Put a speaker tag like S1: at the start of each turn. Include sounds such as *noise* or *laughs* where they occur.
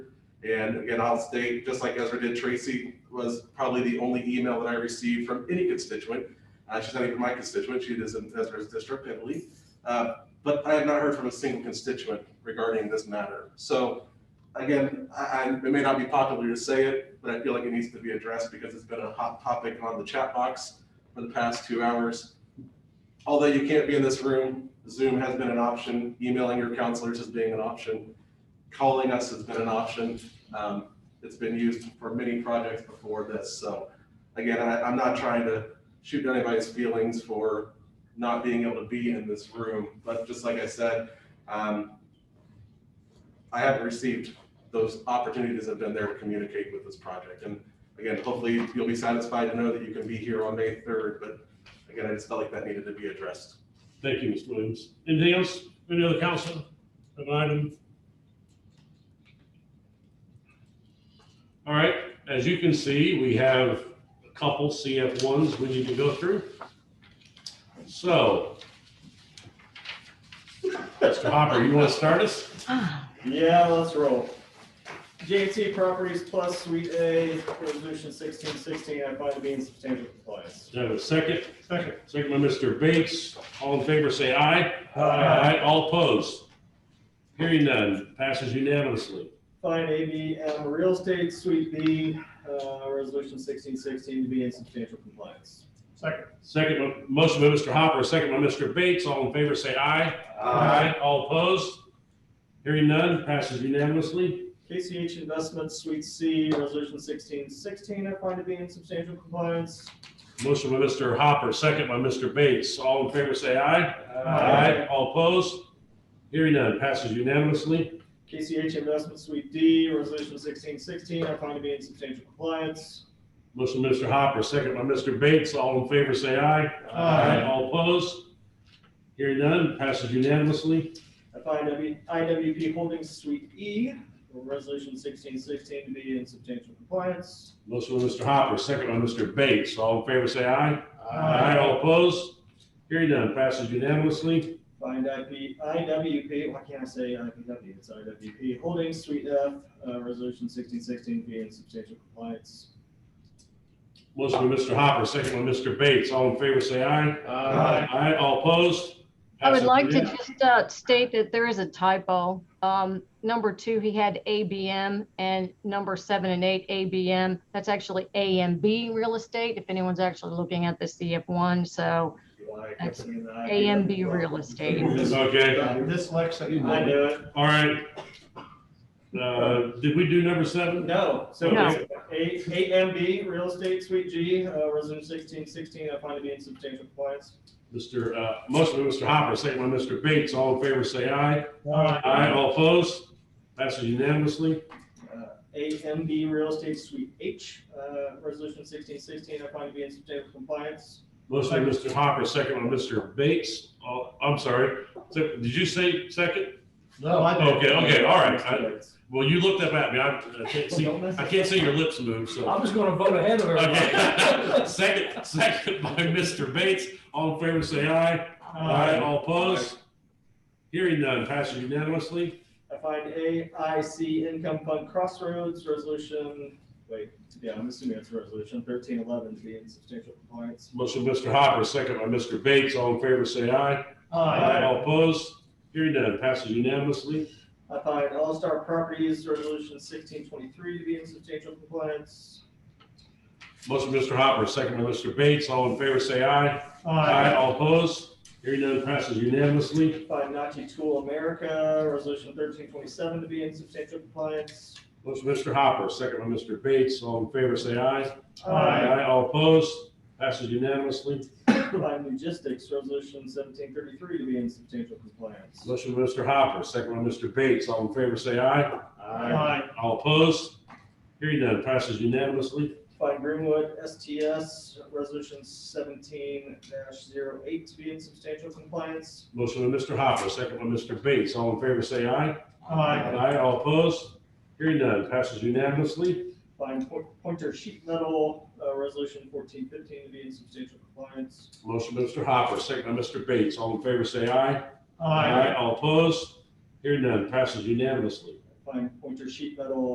S1: And again, I'll state, just like Ezra did, Tracy was probably the only email that I received from any constituent. Uh, she's not even my constituent, she is in Ezra's district, I believe. Uh, but I have not heard from a single constituent regarding this matter. So again, I, I, it may not be popular to say it, but I feel like it needs to be addressed because it's been a hot topic on the chat box for the past two hours. Although you can't be in this room, Zoom has been an option, emailing your counselors has been an option, calling us has been an option. Um, it's been used for many projects before this, so again, I, I'm not trying to shoot down anybody's feelings for not being able to be in this room, but just like I said, um, I haven't received those opportunities that have been there to communicate with this project, and again, hopefully you'll be satisfied to know that you can be here on May third, but again, I just felt like that needed to be addressed.
S2: Thank you, Mr. Williams. Anything else? Any other council? An item? All right, as you can see, we have a couple CF ones we need to go through. So. Mr. Hopper, you want to start us?
S3: Yeah, let's roll. JT Properties Plus Suite A, Resolution sixteen sixteen, I find to be in substantial compliance.
S2: Do I have a second?
S3: Second.
S2: Second by Mr. Bates. All in favor, say aye.
S3: Aye.
S2: All opposed? Hearing none, passes unanimously.
S3: Find ABM Real Estate Suite B, uh, Resolution sixteen sixteen to be in substantial compliance. Second.
S2: Second, motion by Mr. Hopper, second by Mr. Bates. All in favor, say aye. All opposed? Hearing none, passes unanimously.
S3: KCH Investments Suite C, Resolution sixteen sixteen, I find to be in substantial compliance.
S2: Motion by Mr. Hopper, second by Mr. Bates. All in favor, say aye. All opposed? Hearing none, passes unanimously.
S3: KCH Investments Suite D, Resolution sixteen sixteen, I find to be in substantial compliance.
S2: Motion by Mr. Hopper, second by Mr. Bates. All in favor, say aye. All opposed? Hearing none, passes unanimously.
S3: FIW IWP Holdings Suite E, Resolution sixteen sixteen to be in substantial compliance.
S2: Motion by Mr. Hopper, second by Mr. Bates. All in favor, say aye.
S3: Aye.
S2: All opposed? Hearing none, passes unanimously.
S3: Find IP, IWP, why can't I say IPW, it's IWP Holdings Suite F, uh, Resolution sixteen sixteen to be in substantial compliance.
S2: Motion by Mr. Hopper, second by Mr. Bates. All in favor, say aye. Aye, all opposed?
S4: I would like to
S2: Passes
S4: just uh, state that there is a typo. Um, Number two, he had ABM and number seven and eight, ABM. That's actually AMB Real Estate, if anyone's actually looking at the CF1. So AMB Real Estate.
S2: unanimously. Okay,
S3: I
S5: Dyslexic.
S3: knew it,
S2: all right. Uh, Did we do number seven?
S3: no, so
S4: No.
S3: A, AMB Real Estate Suite G, uh, Resolution sixteen sixteen, I find to be in substantial compliance.
S2: Mr., uh, motion by Mr. Hopper, second by Mr. Bates. All in favor, say aye.
S3: Aye.
S2: Aye, all opposed? Passes unanimously.
S3: Uh, AMB Real Estate Suite H, uh, Resolution 1616, I find to be in substantial compliance.
S2: Motion by Mr. Hopper, second by Mr. Bates. All- I'm sorry. So, Did you say second?
S5: No, I did.
S2: Okay, okay, all right. I- Well, you looked up at me. I I can't see,
S3: Uh,
S2: I can't see your lips move, so. *laughs*
S5: I was gonna vote ahead of
S2: Okay. *laughs*
S5: everybody.
S2: Second, second by Mr. Bates. All in favor, say aye. All opposed? Hearing none, passes unanimously.
S3: I find AIC Income Fund Crossroads, Resolution, wait, yeah, I'm assuming it's Resolution 1311 to be in substantial compliance.
S2: Motion, by Mr. Hopper, second by Mr. Bates. All in favor, say aye.
S5: Aye.
S2: All opposed? Hearing none, passes unanimously.
S3: I find All Star Properties, Resolution 1623 to be in substantial compliance.
S2: Motion, by Mr. Hopper, second by Mr. Bates. All in favor, say aye. All opposed? Hearing none, passes unanimously.
S3: I Find Nachi Tool America, Resolution 1327 to be in substantial compliance.
S2: Motion, by Mr. Hopper, second by Mr. Bates. All in favor, say aye.
S5: Aye.
S2: All opposed? Passes unanimously.
S3: Line logistics, resolution seventeen thirty-three to be in substantial compliance.
S2: Motion by Mr. Hopper, second by Mr. Bates. All in favor, say aye.
S3: Aye.
S2: All opposed? Hearing none, passes unanimously.
S3: Find Greenwood STS, resolution seventeen 8 to be in substantial compliance.
S2: Motion by Mr. Hopper, second by Mr. Bates. All in favor, say aye.
S3: Aye.
S2: all opposed? Hearing none, passes unanimously.
S3: Find Po- Pointer Sheet Metal, uh, resolution fourteen fifteen to be in substantial compliance.
S2: Motion by Mr. Hopper, second by Mr. Bates. All in favor, say aye. All opposed? Hearing none, passes unanimously.
S3: Find Pointer Sheet Metal,